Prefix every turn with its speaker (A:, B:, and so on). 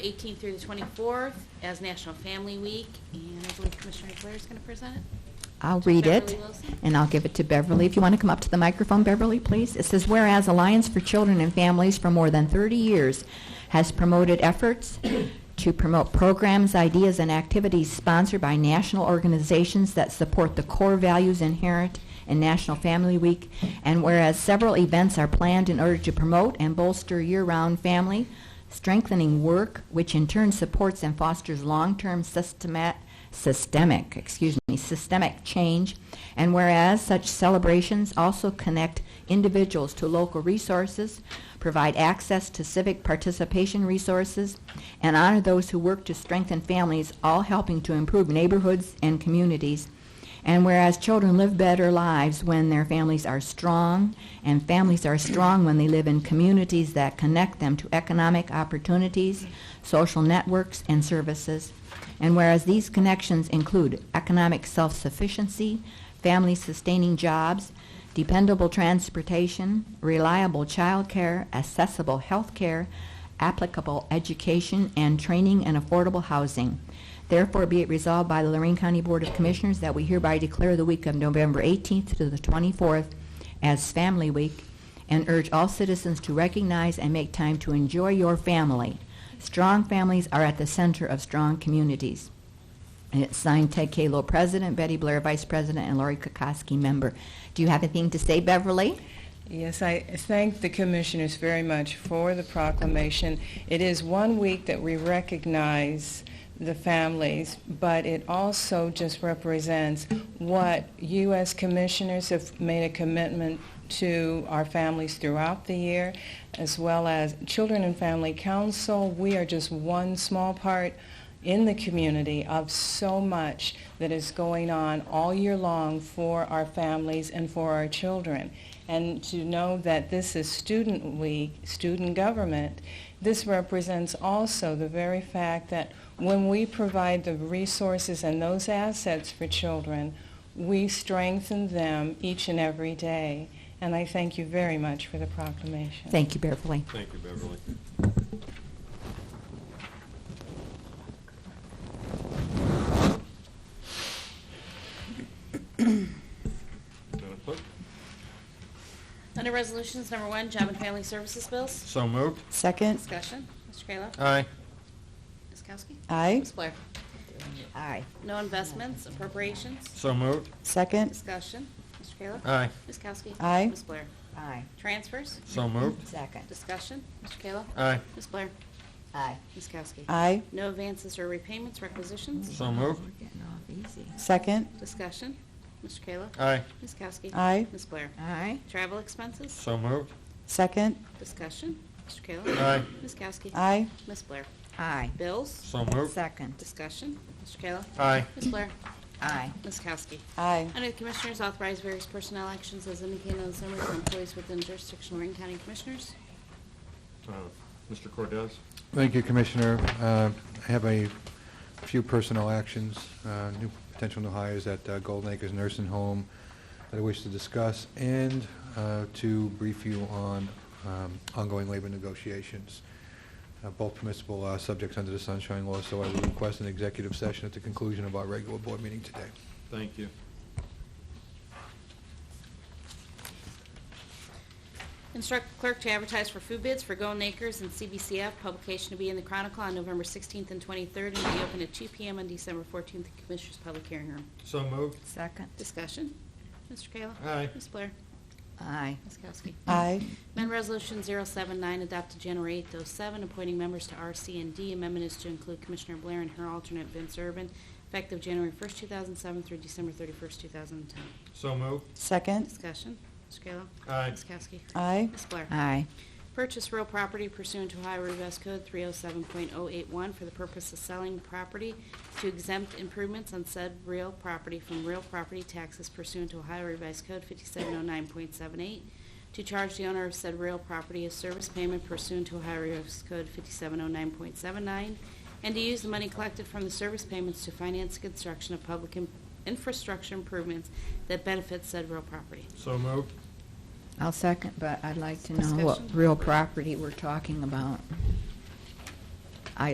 A: 18th through the 24th as National Family Week, and I believe Commissioner Blair is going to present it.
B: I'll read it,
A: Beverly Wilson.
B: and I'll give it to Beverly. If you want to come up to the microphone, Beverly, please. It says, whereas Alliance for Children and Families for more than 30 years has promoted efforts to promote programs, ideas, and activities sponsored by national organizations that support the core values inherent in National Family Week, and whereas several events are planned in order to promote and bolster year-round family, strengthening work, which in turn supports and fosters long-term systemat- systemic, excuse me, systemic change. And whereas such celebrations also connect individuals to local resources, provide access to civic participation resources, and honor those who work to strengthen families, all helping to improve neighborhoods and communities. And whereas children live better lives when their families are strong, and families are strong when they live in communities that connect them to economic opportunities, social networks, and services. And whereas these connections include economic self-sufficiency, family-sustaining jobs, dependable transportation, reliable childcare, accessible health care, applicable education and training, and affordable housing. Therefore, be it resolved by the Lorraine County Board of Commissioners that we hereby declare the week of November 18th to the 24th as Family Week and urge all citizens to recognize and make time to enjoy your family. Strong families are at the center of strong communities. And it's signed Ted Kahlo, President, Betty Blair, Vice President, and Lori Kukoski, Member. Do you have anything to say, Beverly?
C: Yes, I thank the commissioners very much for the proclamation. It is one week that we recognize the families, but it also just represents what you as commissioners have made a commitment to our families throughout the year, as well as Children and Family Council. We are just one small part in the community of so much that is going on all year long for our families and for our children. And to know that this is Student Week, student government, this represents also the very fact that when we provide the resources and those assets for children, we strengthen them each and every day. And I thank you very much for the proclamation.
B: Thank you, Beverly.
D: Thank you, Beverly. Madam Clerk?
A: Under Resolutions Number One, Job and Family Services Bills.
D: So moved.
E: Second,
A: Discussion. Mr. Kayla.
D: Aye.
A: Ms. Kowski.
E: aye.
A: Ms. Blair.
B: Aye.
A: No investments, appropriations.
D: So moved.
E: Second,
A: Discussion. Mr. Kayla.
D: Aye.
A: Ms. Kowski.
E: Aye.
A: Ms. Blair.
B: Aye.
A: Transfers.
D: So moved.
B: Second.
A: Discussion. Mr. Kayla.
D: Aye.
A: Ms. Blair.
B: Aye.
A: Ms. Kowski.
E: aye.
A: No advances or repayments, requisitions.
D: So moved.
B: We're getting off easy.
E: Second,
A: Discussion. Mr. Kayla.
D: Aye.
A: Ms. Kowski.
E: Aye.
A: Ms. Blair.
B: Aye.
A: Travel expenses.
D: So moved.
E: second,
A: Discussion. Mr. Kayla.
D: Aye.
A: Ms. Kowski.
E: aye.
A: Ms. Blair.
B: Aye.
A: Bills.
D: So moved.
B: Second.
A: Discussion. Mr. Kayla.
D: Aye.
A: Ms. Blair.
B: Aye.
A: Ms. Kowski.
E: Aye.
A: Under the Commissioners, authorize various personnel actions as indicated on the summary for employees within jurisdiction of Lorraine County Commissioners.
D: Uh, Mr. Cordez?
F: Thank you, Commissioner. Uh, I have a few personnel actions, uh, new, potential new hires at uh, Golden Acres Nursing Home that I wish to discuss, and uh, to brief you on um, ongoing labor negotiations, Uh, both permissible uh, subjects under the Sunshine Law, so I would request an executive session at the conclusion of our regular board meeting today.
D: Thank you.
A: Instruct clerk to advertise for food bids for Golden Acres and CBCF, publication to be in the Chronicle on November 16th and 23rd, and to be open at 2 PM on December 14th in Commissioners' Public Hearing Room.
D: So moved.
B: Second.
A: Discussion? Mr. Kayla?
D: Aye.
A: Ms. Blair?
B: Aye.
A: Ms. Kowski?
E: Aye.
A: Amendment Resolution 079, adopted January 8th, 07, appointing members to RCND. Amendment is to include Commissioner Blair and her alternate Vince Urban, effective January 1st, 2007 through December 31st, 2010.
D: So moved.
E: Second,
A: Discussion. Mr. Kayla?
D: Aye.
A: Ms. Kowski?
E: aye.
A: Ms. Blair?
B: Aye.
A: Purchase real property pursuant to Ohio Revised Code 307.081 for the purpose of selling property to exempt improvements on said real property from real property taxes pursuant to Ohio Revised Code 5709.78, to charge the owner of said real property a service payment pursuant to Ohio Revised Code 5709.79, and to use the money collected from the service payments to finance the construction of public in- infrastructure improvements that benefit said real property.
D: So moved.
B: I'll second, but I'd like to know what
A: Discussion.
B: real property we're talking about.